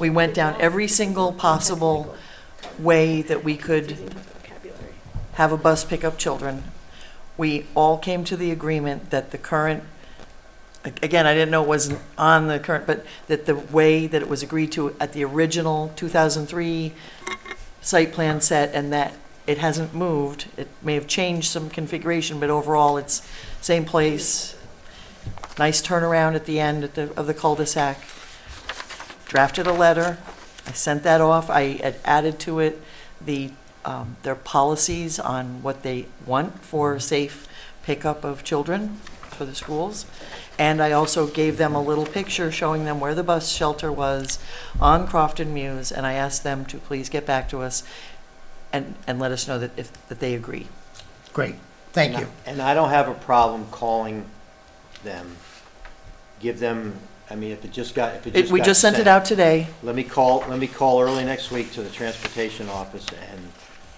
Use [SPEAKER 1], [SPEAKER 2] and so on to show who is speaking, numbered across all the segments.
[SPEAKER 1] We went down every single possible way that we could have a bus pick up children. We all came to the agreement that the current, again, I didn't know it was on the current, but that the way that it was agreed to at the original 2003 site plan set and that it hasn't moved, it may have changed some configuration, but overall, it's same place, nice turnaround at the end at the- of the cul-de-sac. Drafted a letter, I sent that off, I had added to it the, um, their policies on what they want for safe pickup of children for the schools. And I also gave them a little picture showing them where the bus shelter was on Crofton Muse, and I asked them to please get back to us and, and let us know that if, that they agree.
[SPEAKER 2] Great, thank you.
[SPEAKER 3] And I don't have a problem calling them. Give them, I mean, if it just got, if it
[SPEAKER 1] It-
[SPEAKER 3] just
[SPEAKER 1] We
[SPEAKER 3] got
[SPEAKER 1] just sent it out today.
[SPEAKER 3] Let me call, let me call early next week to the transportation office and.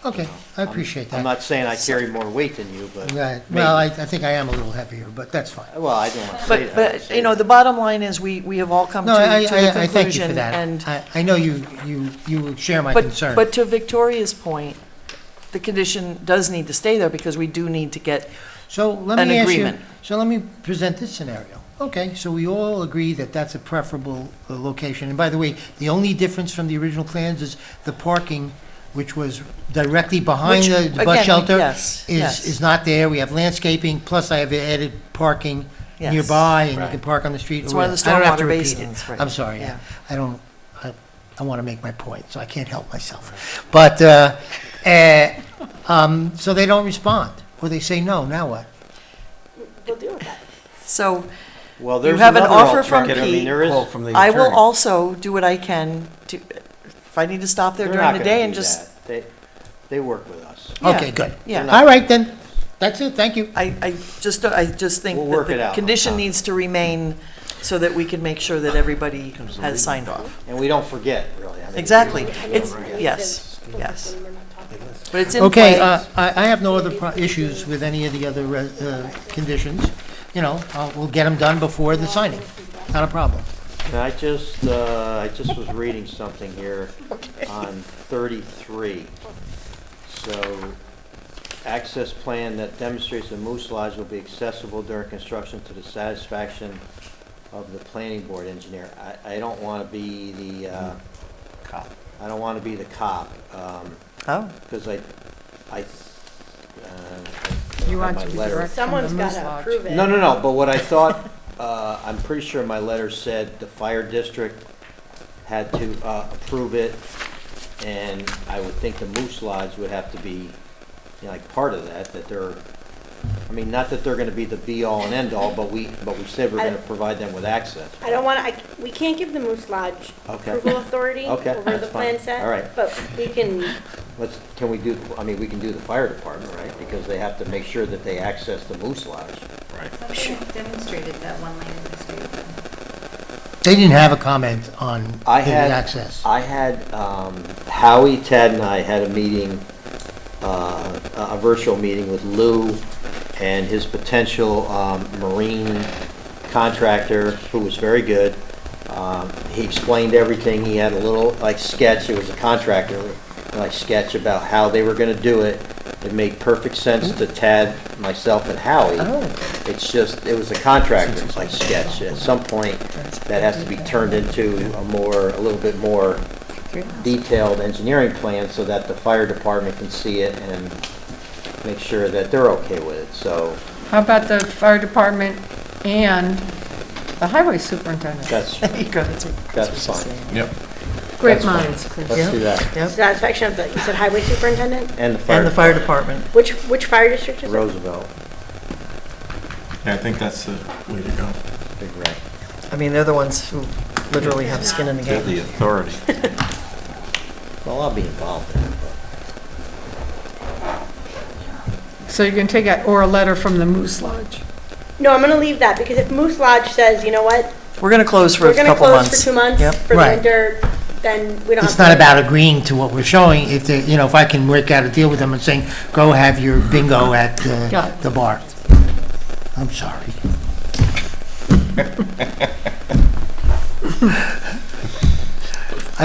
[SPEAKER 2] Okay, I appreciate
[SPEAKER 3] I'm
[SPEAKER 2] that.
[SPEAKER 3] not saying I carry more weight than you, but.
[SPEAKER 2] Right, well, I,
[SPEAKER 3] maybe.
[SPEAKER 2] I think I am a little heavier, but that's fine.
[SPEAKER 1] Uh,
[SPEAKER 3] Well, I don't want to say
[SPEAKER 1] But,
[SPEAKER 3] that.
[SPEAKER 1] but, you know, the bottom line is, we, we have all come to
[SPEAKER 2] No,
[SPEAKER 1] to
[SPEAKER 2] I, I,
[SPEAKER 1] the conclusion.
[SPEAKER 2] I thank you for that.
[SPEAKER 1] And,
[SPEAKER 2] I, I know you, you, you share my
[SPEAKER 1] but,
[SPEAKER 2] concern.
[SPEAKER 1] but to Victoria's point, the condition does need to stay there because we do need to get,
[SPEAKER 2] So let
[SPEAKER 1] an
[SPEAKER 2] me ask you,
[SPEAKER 1] agreement.
[SPEAKER 2] so let me present this scenario. Okay, so we all agree that that's a preferable uh, location. And by the way, the only difference from the original plans is the parking, which was directly behind
[SPEAKER 1] Which,
[SPEAKER 2] the the bus
[SPEAKER 1] again,
[SPEAKER 2] shelter.
[SPEAKER 1] yes, yes.
[SPEAKER 2] Is, is not there. We have landscaping, plus I have added parking
[SPEAKER 1] Yes.
[SPEAKER 2] nearby, and you
[SPEAKER 3] Right.
[SPEAKER 2] can park on the street.
[SPEAKER 1] It's
[SPEAKER 2] or
[SPEAKER 1] one of
[SPEAKER 2] whatever.
[SPEAKER 1] the
[SPEAKER 2] I don't have to
[SPEAKER 1] stormwater
[SPEAKER 2] repeat it.
[SPEAKER 1] basins, right.
[SPEAKER 2] I'm sorry,
[SPEAKER 1] Yeah.
[SPEAKER 2] I I don't, I, I want to make my point, so I can't help myself. But, uh, eh, um, so they don't respond, or they say no, now what?
[SPEAKER 1] so
[SPEAKER 3] Well,
[SPEAKER 1] you
[SPEAKER 3] there's
[SPEAKER 1] have an
[SPEAKER 3] another
[SPEAKER 1] offer from
[SPEAKER 3] alternative. I mean,
[SPEAKER 1] Pete.
[SPEAKER 3] there is,
[SPEAKER 1] I will also do what I can to, if I need to stop there
[SPEAKER 3] they're
[SPEAKER 1] during
[SPEAKER 3] not
[SPEAKER 1] the
[SPEAKER 3] gonna
[SPEAKER 1] day and
[SPEAKER 3] do
[SPEAKER 1] just.
[SPEAKER 3] that. They, they work with us.
[SPEAKER 1] Yeah,
[SPEAKER 2] Okay, good.
[SPEAKER 1] yeah.
[SPEAKER 2] All right, then, that's it, thank you.
[SPEAKER 1] I, I just, I just think
[SPEAKER 3] We'll
[SPEAKER 1] that
[SPEAKER 3] work it
[SPEAKER 1] the
[SPEAKER 3] out.
[SPEAKER 1] condition needs to remain so that we can make sure that everybody has signed off.
[SPEAKER 3] And we don't forget, really. I mean,
[SPEAKER 1] Exactly.
[SPEAKER 3] we don't
[SPEAKER 1] It's,
[SPEAKER 3] forget.
[SPEAKER 1] yes, yes.
[SPEAKER 4] We're not talking about
[SPEAKER 1] But it's in
[SPEAKER 2] Okay,
[SPEAKER 1] place.
[SPEAKER 2] uh, I, I have no other pro- issues with any of the other re- uh, conditions. You know, I'll- we'll get them done before the signing, not a problem.
[SPEAKER 3] And I just, uh, I just was reading something here on 33. So, access plan that demonstrates the moose lodge will be accessible during construction to the satisfaction of the planning board engineer. I, I don't want to be the, uh, Cop. I don't want to be the cop, um,
[SPEAKER 1] Oh,
[SPEAKER 3] because I, I, uh. I
[SPEAKER 5] You
[SPEAKER 3] don't have
[SPEAKER 5] want
[SPEAKER 3] my
[SPEAKER 5] to be
[SPEAKER 3] letter.
[SPEAKER 4] it.
[SPEAKER 5] direct from the
[SPEAKER 4] Someone's
[SPEAKER 5] Moose
[SPEAKER 4] gotta
[SPEAKER 5] Lodge.
[SPEAKER 4] approve it.
[SPEAKER 3] No, no, no, but what I thought, uh, I'm pretty sure my letter said the fire district had to uh, approve it, and I would think the Moose Lodge would have to be, you know, like, part of that, that they're, I mean, not that they're gonna be the be-all and end-all, but we, but we said we're
[SPEAKER 4] I-
[SPEAKER 3] gonna provide them with access.
[SPEAKER 4] I don't want to, we can't give the Moose Lodge
[SPEAKER 3] Okay.
[SPEAKER 4] approval authority
[SPEAKER 3] Okay,
[SPEAKER 4] over the
[SPEAKER 3] that's fine.
[SPEAKER 4] plan set.
[SPEAKER 3] All right.
[SPEAKER 4] But we can,
[SPEAKER 3] Let's, can we do, I mean, we can do the fire department, right? Because they have to make sure that they access the Moose Lodge.
[SPEAKER 5] Demonstrated that one lane in the street.
[SPEAKER 2] They didn't have a comment on the
[SPEAKER 3] I had
[SPEAKER 2] access.
[SPEAKER 3] I had um, Howie, Ted, and I had a meeting, uh, a a virtual meeting with Lou and his potential um, marine contractor, who was very good. Um, He explained everything. He had a little like sketch. It was a contractor like sketch about how they were going to do it. It made perfect sense to Ted, myself, and Howie. It's just, it was a contractor, like sketch, at some point, that has to be turned into a more, a little bit more detailed engineering plan so that the fire department can see it and make sure that they're okay with it, so
[SPEAKER 5] How about the fire department and the highway superintendent?
[SPEAKER 3] that's,
[SPEAKER 1] there you go, that's what Chris
[SPEAKER 3] That's
[SPEAKER 1] was just
[SPEAKER 3] fine.
[SPEAKER 1] saying.
[SPEAKER 5] Great minds,
[SPEAKER 3] let's
[SPEAKER 5] Chris.
[SPEAKER 3] do that.
[SPEAKER 4] satisfaction of the, you said highway superintendent?
[SPEAKER 3] And the
[SPEAKER 1] And
[SPEAKER 3] fire
[SPEAKER 1] the fire
[SPEAKER 3] department,
[SPEAKER 1] department.
[SPEAKER 4] Which, which fire district is it?
[SPEAKER 3] Roosevelt,
[SPEAKER 6] Yeah, I think that's the way to go.
[SPEAKER 3] big wreck.
[SPEAKER 1] I mean, they're the ones who literally have skin in the
[SPEAKER 6] Get
[SPEAKER 1] game.
[SPEAKER 6] the authority.
[SPEAKER 3] Well, I'll be involved in it, but
[SPEAKER 5] So you can take out, or a letter from the Moose Lodge.
[SPEAKER 4] No, I'm going to leave that because if Moose Lodge says, you know what,
[SPEAKER 1] We're gonna close for
[SPEAKER 4] we're
[SPEAKER 1] a
[SPEAKER 4] going to
[SPEAKER 1] couple
[SPEAKER 4] close for
[SPEAKER 1] months.
[SPEAKER 4] two months
[SPEAKER 1] Yep.
[SPEAKER 4] for the
[SPEAKER 2] Right.
[SPEAKER 4] winter, then we don't have.
[SPEAKER 2] It's not
[SPEAKER 4] to-
[SPEAKER 2] about agreeing to what we're showing, if they, you know, if I can work out a deal with them and saying, go have your bingo at uh,
[SPEAKER 5] Yeah.
[SPEAKER 2] the, the bar. I'm sorry.